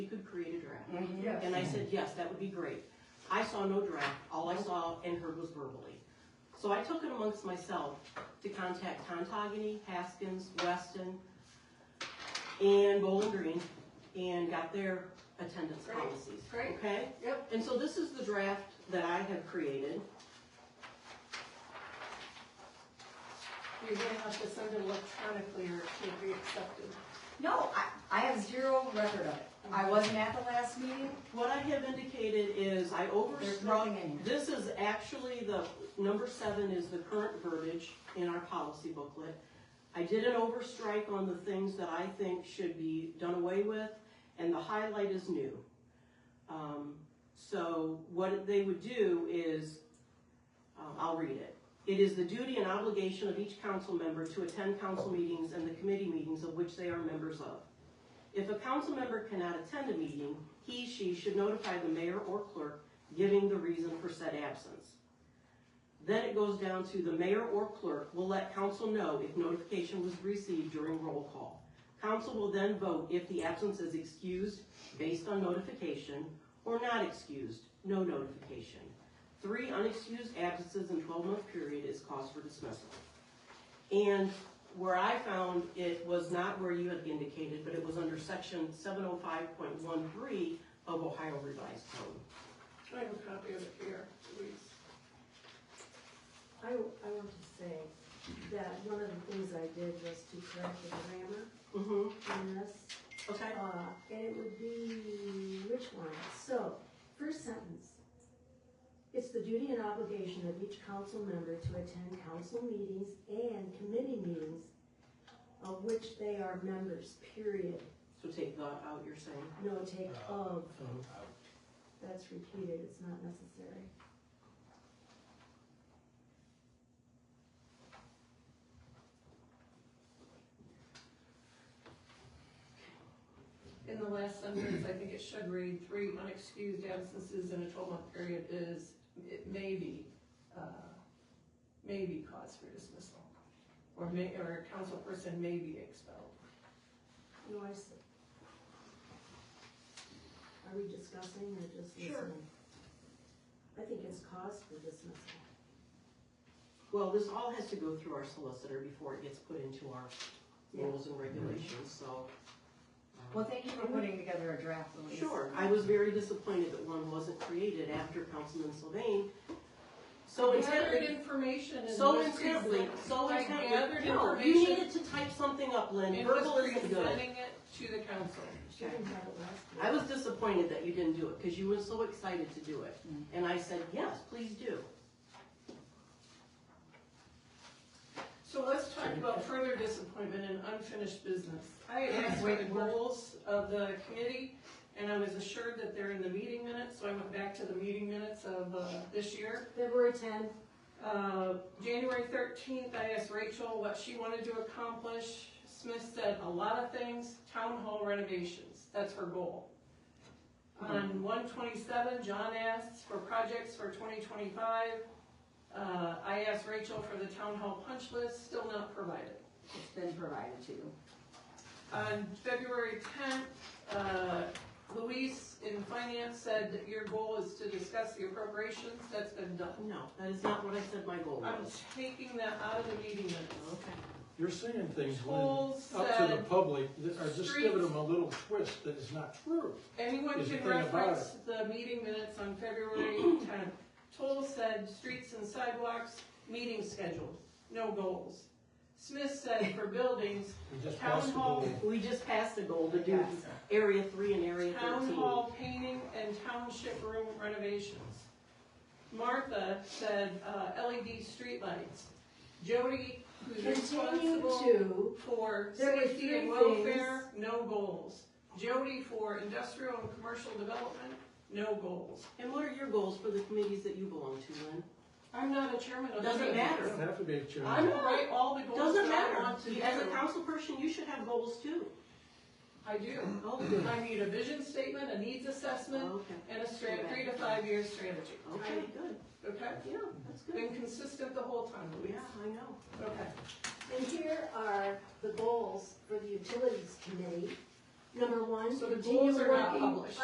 you could create a draft. Yes. And I said, yes, that would be great. I saw no draft, all I saw and heard was verbally. So I took it amongst myself to contact Contagony, Haskins, Weston, and Bowling Green, and got their attendance Great, policies. great. Okay? Yep. And so this is the draft that I have created. You're gonna have to send it electronically or it can't be accepted. No, I, I have zero record of it. I wasn't at the last meeting. What I have indicated is I There's overstruck, nothing in here. this is actually the, number seven is the current verbiage in our policy booklet. I did an overstrike on the things that I think should be done away with, and the highlight is new. Um, so what they would do is, um, I'll read it. It is the duty and obligation of each council member to attend council meetings and the committee meetings of which they are members of. If a council member cannot attend a meeting, he, she should notify the mayor or clerk giving the reason for said absence. Then it goes down to the mayor or clerk will let council know if notification was received during roll call. Council will then vote if the absence is excused based on notification or not excused, no notification. Three unexcused absences in twelve month period is cause for dismissal. And where I found it was not where you had indicated, but it was under section seven oh five point one three of Ohio Revised Code. I have a copy of it here, please. I, I want to say that one of the things I did was to correct the grammar Mm-hmm, in this, okay, uh, and it would be, which one? So, first sentence. It's the duty and obligation of each council member to attend council meetings and committee meetings of which they are members, period. so take that out, you're saying. No take of. That's repeated, it's not necessary. In the last sentence, I think it should read, three unexcused absences in a twelve-month period is, it may be, uh, may be cause for dismissal. Or may, or a council person may be expelled. No, I see. Are we discussing or just Sure. listening? I think it's cause for dismissal. Well, this all has to go through our solicitor before it gets put into our rules and regulations, so. um, Well, thank you for putting together a draft, Louise. Sure, I was very disappointed that one wasn't created after Councilman Sylvain. So Gathered intently, information and. so was intently, present- so I intently. No, gathered You information. needed to type something up, Lynn, And was verbal isn't good. presenting it to the council. She didn't have it last I year. was disappointed that you didn't do it, because you were so excited to do it. Mm. And I said, yes, please do. So let's talk about further disappointment and unfinished business. I had asked for the goals of the committee, and I was assured that they're in the meeting minutes, so I went back to the meeting minutes of uh, this year. February ten, Uh, January thirteenth, I asked Rachel what she wanted to accomplish. Smith said a lot of things, town hall renovations, that's her goal. On one twenty-seven, John asked for projects for twenty twenty-five. Uh, I asked Rachel for the town hall punch list, still not provided. It's been provided to you. On February tenth, uh, Luis in finance said that your goal is to discuss the appropriations, that's been done. No, that is not what I said my goal I'm was. taking that out of the meeting minutes. Okay. You're saying things when, Polls up to the said, public, that are just giving Streets. them a little twist that is not true. anyone is the can thing about reference the meeting minutes on February tenth. Toll said, streets and sidewalks, meeting scheduled, no goals. Smith said, for buildings, We just Town passed the hall. bill. We just passed a goal to do Yes. area three and area town thirteen. hall painting and township room renovations. Martha said, uh, LED streetlights. Jody, who's continue responsible. to, for There were safety and three welfare, no goals. Jody for industrial and commercial development, no goals. And what are your goals for the committees that you belong to, Lynn? I'm not a chairman of. Doesn't the- You don't matter. have to be a I chairman. will write all the goals Doesn't that I matter. want to do. As a council person, you should have goals too. I do. Oh, I need a vision statement, a needs assessment, Okay, and a strat, three to five year strategy. okay, good. Okay? Yeah, that's good. Been consistent the whole time, Yeah, Louise. I know. Okay. and here are the goals for the utilities committee Number one, So the continue goals are not working published.